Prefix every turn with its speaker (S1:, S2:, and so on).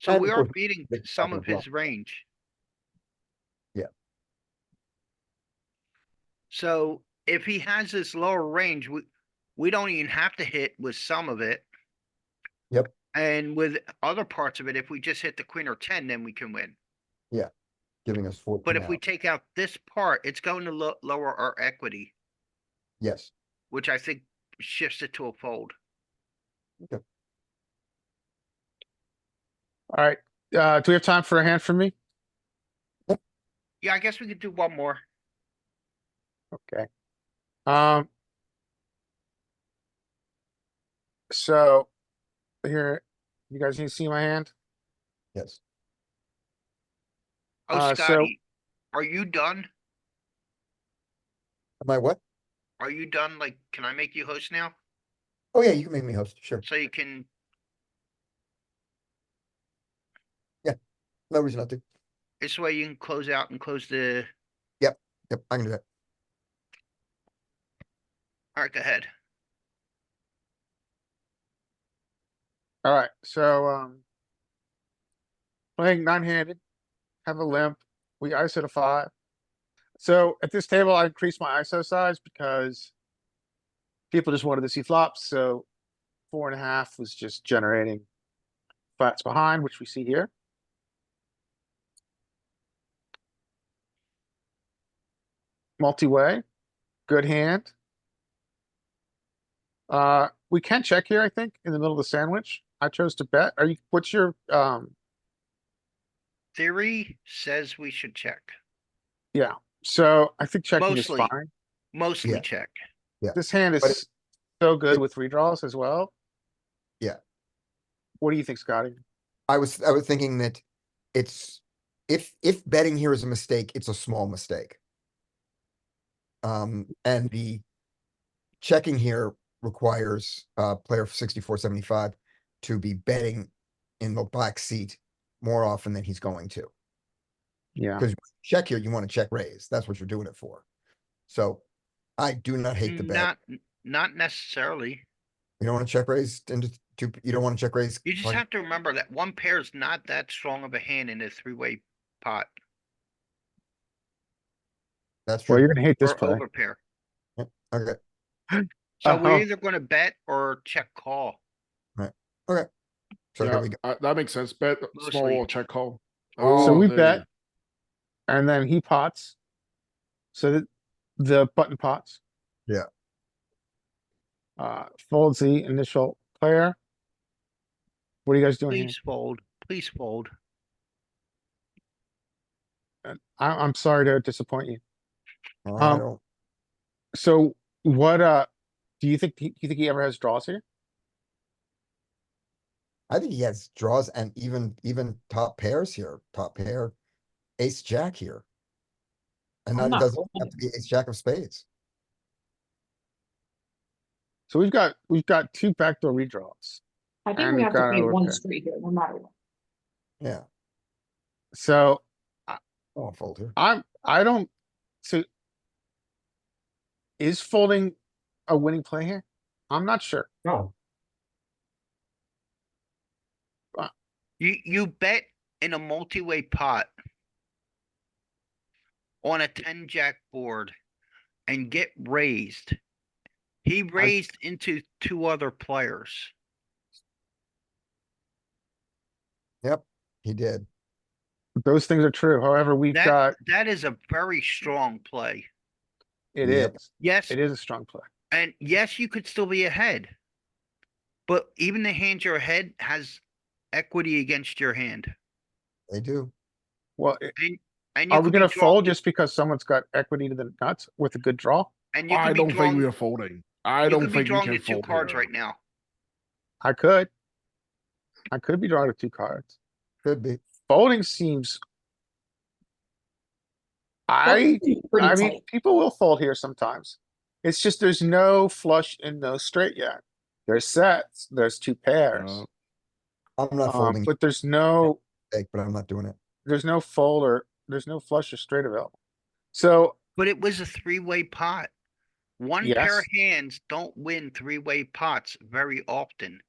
S1: So we are
S2: Technically,
S1: beating
S2: big
S1: some
S2: blind
S1: of
S2: as well.
S1: his range.
S2: Yeah.
S1: So if he has this lower range, we, we don't even have to hit with some of it.
S2: Yep.
S1: And with other parts of it, if we just hit the queen or ten, then we can win.
S2: giving us fourteen
S1: But if we
S2: out.
S1: take out this part, it's going to lo- lower our equity,
S2: Yes,
S1: which I think shifts it to a fold.
S3: Alright, uh, do we have time for a hand from me?
S1: Yeah, I guess we could do one more.
S3: Okay. Um. So, here, you guys need to see my hand?
S2: yes.
S1: Oh,
S3: Uh, so-
S1: Scotty, are you done?
S2: Am I what?
S1: Are you done? Like, can I make you host now?
S2: Oh, yeah, you can make me host, sure.
S1: So you can,
S2: No reason not to.
S1: this way you can close out and close the,
S2: Yep, I can do that.
S1: alright, go ahead.
S3: Alright, so, um. Playing nine-handed, have a limp, we ISO to five. So at this table, I increased my ISO size because. People just wanted to see flops, so four and a half was just generating. Flats behind, which we see here. Multi-way, good hand. Uh, we can check here, I think, in the middle of the sandwich. I chose to bet. Are you, what's your, um,
S1: Theory says we should check,
S3: yeah, so I think checking is
S1: Mostly.
S3: fine.
S1: mostly
S2: Yeah.
S1: check.
S3: This hand
S2: But it-
S3: is so good
S2: it-
S3: with redraws as well.
S2: Yeah.
S3: What do you think, Scotty?
S2: I was, I was thinking that it's, if, if betting here is a mistake, it's a small mistake. Um, and the checking here requires, uh, player sixty-four seventy-five to be betting in the black seat more often than he's going to.
S3: Yeah,
S2: Check here, you wanna check raise, that's what you're doing it for. So I do not hate the bet.
S1: Not, not necessarily.
S2: You don't wanna check raise into two, you don't wanna check raise.
S1: You just
S2: like-
S1: have to remember that one pair is not that strong of a hand in a three-way pot
S2: That's
S3: well,
S2: true,
S3: you're gonna hate this
S1: or
S3: play.
S1: over pair.
S2: okay.
S1: So
S3: Uh-huh.
S1: we're either gonna bet or check call.
S2: So
S4: Yeah,
S2: here we go.
S4: uh, that makes sense. Bet small
S1: Mostly.
S4: wall check call. Oh,
S3: So we
S4: there you
S3: bet.
S4: go.
S3: And then he pots. So the, the button pots.
S2: Yeah.
S3: Uh, folds the initial player. What are you guys doing here?
S1: Please fold, please fold.
S3: I, I'm sorry to disappoint you.
S2: I
S3: um,
S2: don't-
S3: So what, uh, do you think, he- do you think he ever has draws here?
S2: I think he has draws and even, even top pairs here, top pair, ace, jack here. And
S3: I'm
S2: that
S3: not
S2: doesn't have to be ace, jack of spades.
S3: So we've got, we've got two backdoor redraws.
S5: I
S3: And
S5: think we
S3: we've
S5: have to
S3: got
S5: play
S3: our
S5: one
S3: overpair.
S5: street here, no matter what.
S2: Yeah,
S3: So
S2: I won't fold here.
S3: I'm, I don't, so. Is folding a winning play here? I'm not sure.
S2: No.
S1: You, you bet in a multi-way pot. On a ten jack board and get raised. He raised into two other players.
S2: He did.
S3: Those things are true. However, we've got,
S4: uh,
S1: That, that is a very strong play.
S3: it
S2: Yep.
S3: is,
S1: Yes,
S3: it is a strong play.
S1: and yes, you could still be ahead. But even the hand you're ahead has equity against your hand.
S2: They do.
S3: Well, i-
S1: And you
S3: are
S1: could
S3: we
S1: be
S3: gonna
S1: draw-
S3: fold just because someone's got equity to the nuts with a good draw?
S1: And you
S4: I
S1: could be
S4: don't think
S1: drawing,
S4: we are
S1: you
S4: folding. I don't
S1: could be
S4: think we
S1: drawing
S4: can
S1: the two
S4: fold
S1: cards
S4: here.
S1: right now.
S3: I could. I could be drawing with two cards.
S2: Could be.
S3: Folding seems. I,
S5: Pretty
S3: I
S5: tight.
S3: mean, people will fold here sometimes. It's just there's no flush and no straight yet. There's sets, there's two pairs.
S4: Uh,
S2: I'm not
S3: Um,
S2: folding,
S3: but there's no,
S2: mistake, but I'm not doing it.
S3: there's no fold or, there's no flush or straight available. So
S1: But it was a three-way pot. One pair of hands don't win three-way pots very often.